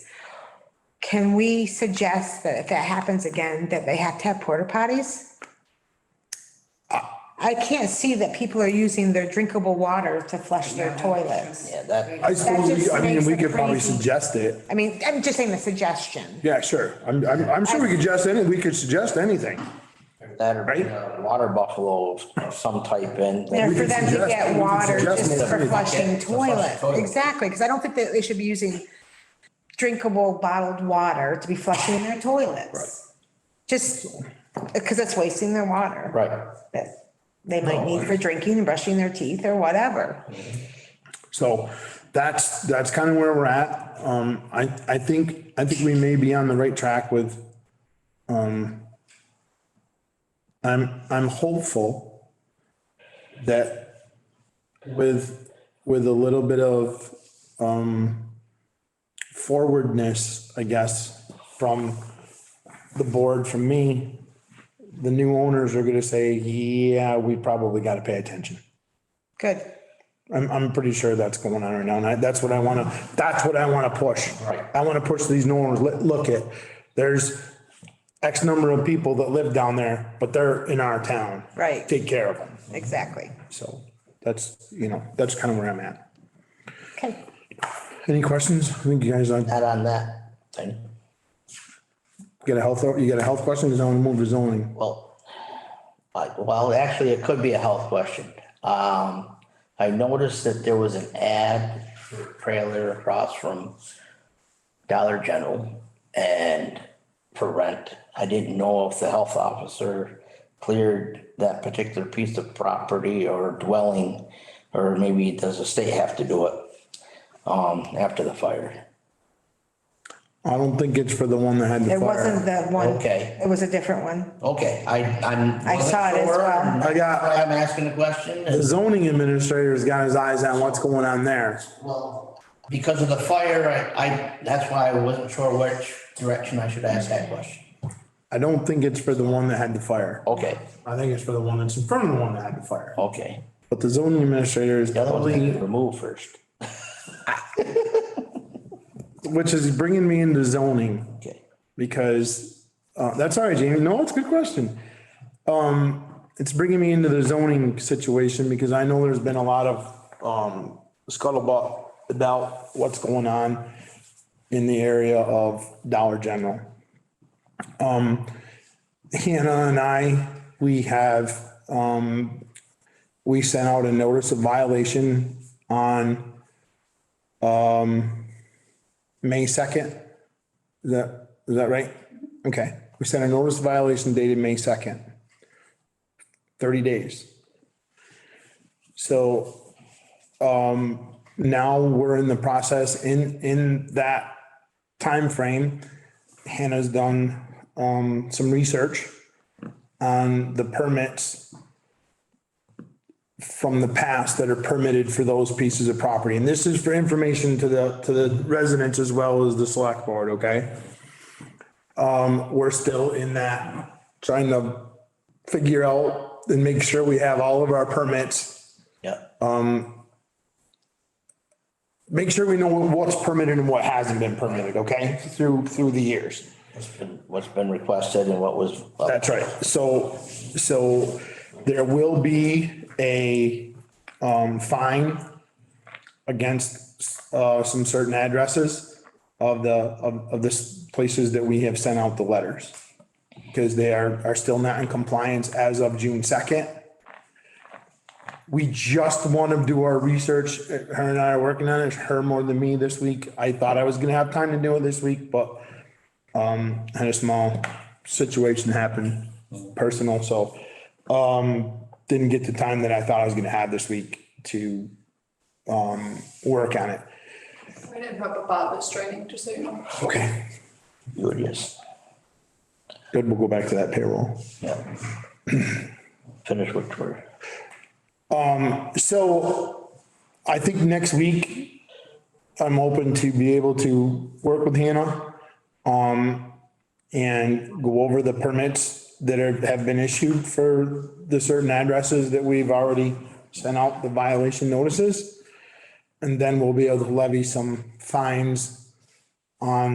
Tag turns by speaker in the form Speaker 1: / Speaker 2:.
Speaker 1: Can we suggest that if that happens again, that they have to have porta potties? I can't see that people are using their drinkable water to flush their toilets.
Speaker 2: Yeah, that,
Speaker 3: I suppose, we- I mean,
Speaker 1: That
Speaker 3: we
Speaker 1: just makes
Speaker 3: could
Speaker 1: it
Speaker 3: probably
Speaker 1: crazy.
Speaker 3: suggest it.
Speaker 1: I mean, I'm just saying the suggestion.
Speaker 3: Yeah, sure. I'm, I'm, I'm sure we could suggest any, we could suggest anything.
Speaker 2: that or
Speaker 3: Right?
Speaker 2: uh, water buffalo of some type and.
Speaker 1: You know, for
Speaker 3: can
Speaker 1: them to
Speaker 3: suggest- we
Speaker 1: get
Speaker 3: can
Speaker 1: water
Speaker 3: suggest
Speaker 1: just
Speaker 3: it.
Speaker 1: for
Speaker 2: Yeah,
Speaker 1: flushing
Speaker 2: to flush the
Speaker 1: toilets.
Speaker 2: toilet.
Speaker 1: Exactly, because I don't think that they should be using drinkable bottled water to be flushing their toilets. Just, because it's wasting their water.
Speaker 2: Right.
Speaker 1: that they might need for drinking and brushing their teeth or whatever.
Speaker 3: So that's, that's kind of where we're at. Um, I, I think, I think we may be on the right track with, um, I'm, I'm hopeful that with, with a little bit of, um, forwardness, I guess, from the board, from me, the new owners are gonna say, yeah, we probably gotta pay attention.
Speaker 1: Good.
Speaker 3: I'm, I'm pretty sure that's going on right now, and I, that's what I wanna, that's what I wanna push.
Speaker 2: Right.
Speaker 3: I wanna push these norms, let, look at, there's X number of people that live down there, but they're in our town.
Speaker 1: Right.
Speaker 3: Take care of them,
Speaker 1: Exactly.
Speaker 3: so that's, you know, that's kind of where I'm at.
Speaker 1: Okay.
Speaker 3: Any questions? I think you guys, uh,
Speaker 2: Add on that thing.
Speaker 3: get a health, you got a health question, because I wanna move to zoning.
Speaker 2: Well, I- well, actually, it could be a health question. Um, I noticed that there was an ad for a trailer across from Dollar General and for rent. I didn't know if the health officer cleared that particular piece of property or dwelling, or maybe does the state have to do it, um, after the fire?
Speaker 3: I don't think it's for the one that had the
Speaker 1: It wasn't
Speaker 3: fire.
Speaker 1: the one.
Speaker 2: Okay.
Speaker 1: It was a different one.
Speaker 2: Okay, I, I'm.
Speaker 1: I saw it as
Speaker 2: wasn't
Speaker 1: well.
Speaker 2: sure.
Speaker 3: I got-
Speaker 2: I'm asking a question.
Speaker 3: The zoning administrator's got his eyes on what's going on there.
Speaker 2: Well, because of the fire, I, I, that's why I wasn't sure which direction I should ask that question.
Speaker 3: I don't think it's for the one that had the fire.
Speaker 2: Okay,
Speaker 3: I think it's for the one that's in front of the one that had the fire.
Speaker 2: okay.
Speaker 3: But the zoning administrator is
Speaker 2: The other one's
Speaker 3: probably,
Speaker 2: gonna get removed first.
Speaker 3: which is bringing me into zoning
Speaker 2: Okay.
Speaker 3: because, uh, that's all right, Jamie. No, it's a good question. Um, it's bringing me into the zoning situation because I know there's been a lot of, um, scuttlebutt about what's going on in the area of Dollar General. Um, Hannah and I, we have, um, we sent out a notice of violation on, um, May 2nd. Is that, is that right? Okay, we sent a notice of violation dated May second. Thirty days. So, um, now we're in the process in, in that timeframe. Hannah's done, um, some research on the permits from the past that are permitted for those pieces of property. And this is for information to the, to the residents as well as the select board, okay? we're still in that, trying to figure out and make sure we have all of our permits.
Speaker 2: Yeah,
Speaker 3: Make sure we know what's permitted and what hasn't been permitted, okay, through, through the years.
Speaker 2: what's been, what's been requested and what was.
Speaker 3: That's right. So, so there will be a um, fine against uh, some certain addresses of the, of, of the s- places that we have sent out the letters. Because they are, are still not in compliance as of June second. We just want to do our research. Her and I are working on it. Her more than me this week. I thought I was gonna have time to do it this week, but had a small situation happen, personal, so, um, didn't get the time that I thought I was gonna have this week to, um, work on it.
Speaker 4: I didn't have a Bob was training, just so you know.
Speaker 3: Okay.
Speaker 2: You would just,
Speaker 3: Good, we'll go back to that payroll.
Speaker 2: yeah. Finish what we're,
Speaker 3: So I think next week, I'm open to be able to work with Hannah, um, and go over the permits that are, have been issued for the certain addresses that we've already sent out the violation notices. And then we'll be able to levy some fines on